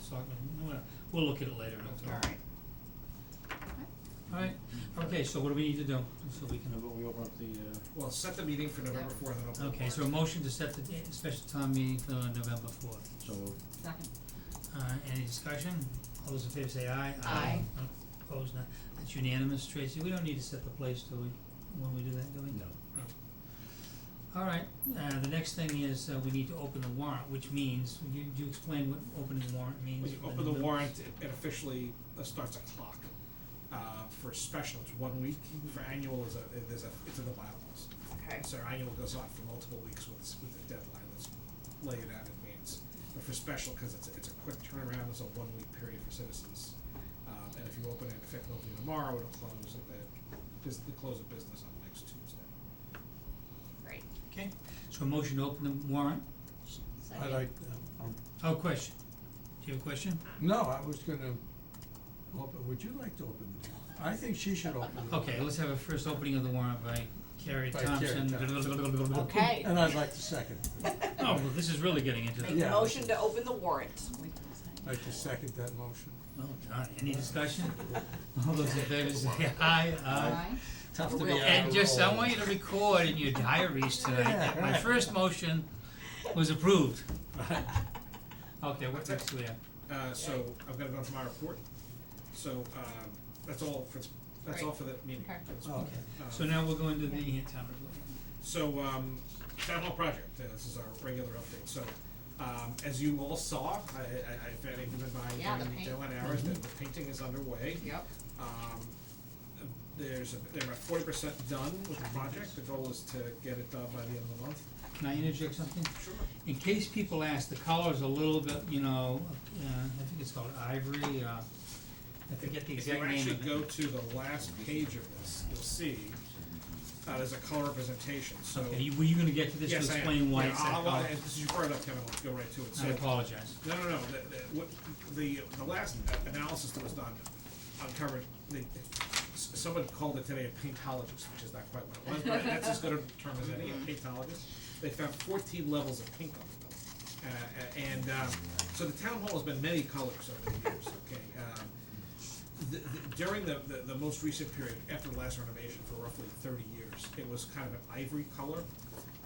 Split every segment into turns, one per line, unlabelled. Selectmen, we'll, we'll look at it later, that's all.
Alright.
Alright, okay, so what do we need to do, so we can,
we open up the, uh,
Well, set the meeting for November fourth and open. the
okay, so a
warrant.
motion to set the date, special town meeting for November fourth.
so moved.
Second.
Uh, any discussion? All those in favor say aye.
Aye.
Opposed, none. That's unanimous, Tracy. We don't need to set the place, do we, when we do that, do we?
no,
All right, uh, the next thing is, uh, we need to open the warrant, which means, would you, do you explain what opening the warrant means?
When you
for
open the
new
warrant, it- it officially uh, starts a clock. Uh, for special, it's one week, for annual is a, it- there's a, it's in the bylaws.
Okay.
So our annual goes on for multiple weeks with, s- with a deadline that's laid out in advance. But for special, cause it's, it's a quick turnaround, it's a one week period for citizens. Um, and if you open it in fact, it'll be tomorrow, it'll close, at the bus the close of business on next Tuesday.
Great.
bill? Okay, so a motion to open the warrant.
I like, um,
Oh, question. Do you have a question?
no, I was gonna, open, would you like to open the door? I think she should open the door.
Okay, let's have a first opening of the warrant by Carrie
By Carrie
Thompson.
Thompson.
Okay.
And I'd like to second,
Oh, well, this is really getting into the.
Make the
Yeah.
motion to open the warrant.
like to second that motion.
Oh, God, any discussion? All those in favor say aye, aye.
Tough
to be out
And just, I want you to record in your diaries tonight that my
Yeah.
first motion was approved. Okay, what next do we have?
Uh, so I've gotta go on to my report, so, um, that's all for, that's all for the meeting.
Great. Okay.
That's-
Oh, okay.
um,
So now we'll go into the town report.
So, um, town hall project, uh, this is our regular update, so, um, as you all saw, I, I, I, if any of you have been
Yeah,
by
the
during the
paint.
Dylan hours, that the painting is underway.
Yep.
Um, there's, a- they're about forty percent done with the project, the goal is to get it done by the end of the month.
Can I interject something?
Sure.
In case people ask, the color's a little bit, you know, uh, I think it's called ivory, uh, I forget the
If
exact
you
name of it.
actually go to the last page of this, you'll see, uh, there's a color representation, so.
Okay, you- were you gonna get to this to
Yes, I am.
explain why
Yeah,
it's that
I'll-
color?
I'll- This is your part of that, Kevin, I'll go right to it, so.
I apologize.
No, no, no, the, the, what, the, the last analysis that was done uncovered, the, s- someone called it today a paintologist, which is not quite what it was, but that's as good a term as
Mm-hmm.
any, a paintologist. They found fourteen levels of paint on them. Uh, a- and, um, so the town hall has been many colors over the years, okay? Um, the, the- during the, the, the most recent period, after the last renovation for roughly thirty years, it was kind of an ivory color,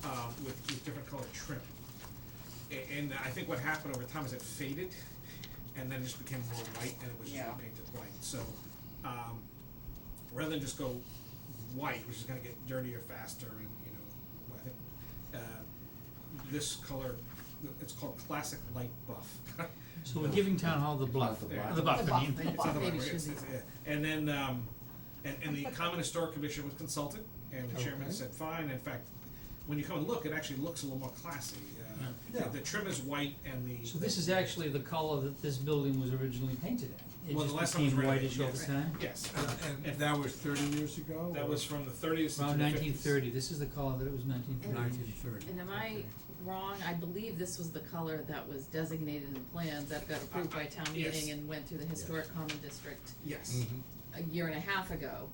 um, with, with different colored trim. A- And I think what happened over time is it faded, and then it just became more white, and it was just
Yeah.
repainted white, so, um, rather than just go white, which is gonna get dirtier faster, and, you know, I think, uh, this color, it's called classic light buff.
So we're giving town hall the bluff,
The
uh,
bluff.
the buff,
The
I mean.
buff, the
It's not the
Maybe
right-
should
it's- it's- yeah. And then, um, and, and the common historic commission was consulted, and the chairman
Okay.
said, fine, in fact, when you come and look, it actually looks a little more classy, uh, the-
Yeah.
the trim is white and the.
So this is actually the color that this building was originally painted at. It
Well, the last
just
time was
became
renovated,
whitish over
yes.
time.
Yes,
And that was thirty years ago?
that was from the thirties to the
Around
fifties.
nineteen thirty, this is the color that it was nineteen thirty.
Nineteen thirty.
And am I wrong? I believe this was the color that was designated in the plans that got approved by town
Yes.
meeting and went through the historic common district
Yes,
a
Mhm.
year and a half ago,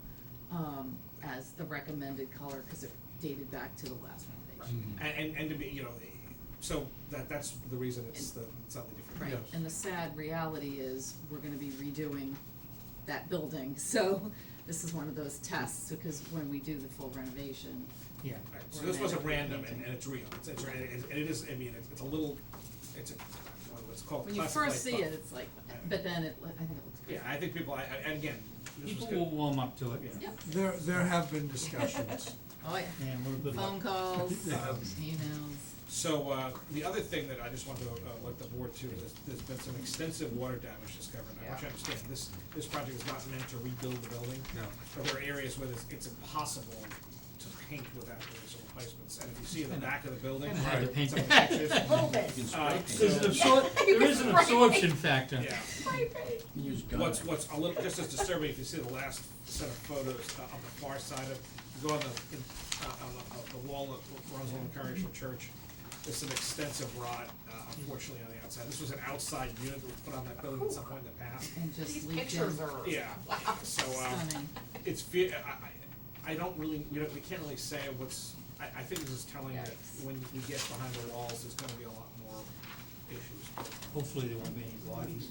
um, as the recommended color, cause it dated back to the last renovation.
Mhm.
Mm-hmm.
and, and, and to be, you know, so that, that's the reason it's the, slightly different.
Right,
Yes.
and the sad reality is, we're gonna be redoing that building, so this is one of those tests, because when we do the full renovation,
Yeah,
Right, so this wasn't random and, and it's real, it's, it's, and it is- and it is, I mean, it's, it's a little, it's a, what's called
when you
classic
first
light
see it,
buff.
it's like, but then it, I think it looks good.
Yeah, I think people, I, I- and again, this was
people
good.
will warm up to it,
Yeah.
Yep,
There, there have been discussions.
oh yeah.
and we're good.
Phone calls,
Yeah.
emails.
So, uh, the other thing that I just wanted to, uh, let the board to, is there's been some extensive water damage discovered, and I want you to understand, this, this project is not meant to rebuild the building.
No.
But there are areas where it's, it's impossible to paint without doing some replacements, and if you see in the back of the building,
Kinda hard to paint.
some of the pictures,
A little bit.
uh,
There's an
so-
absor- there is an absorption factor.
yeah.
Use
What's, what's a little, just as disturbing, if you see the last set of photos uh, on the far side of, you go on the, in- uh, on the, uh, the wall that runs along Congregational Church, there's some extensive rot, uh, unfortunately, on the outside. This was an outside unit that was put on that building at some point in the past.
And just
These
leaked
pictures
in.
are.
Yeah, so, um,
Stunning.
it's, fe- I- I, I don't really, we don't, we can't really say what's, I, I think this is telling that
Yikes.
when we get behind the walls, there's gonna be a lot more issues.
Hopefully there won't be any bodies.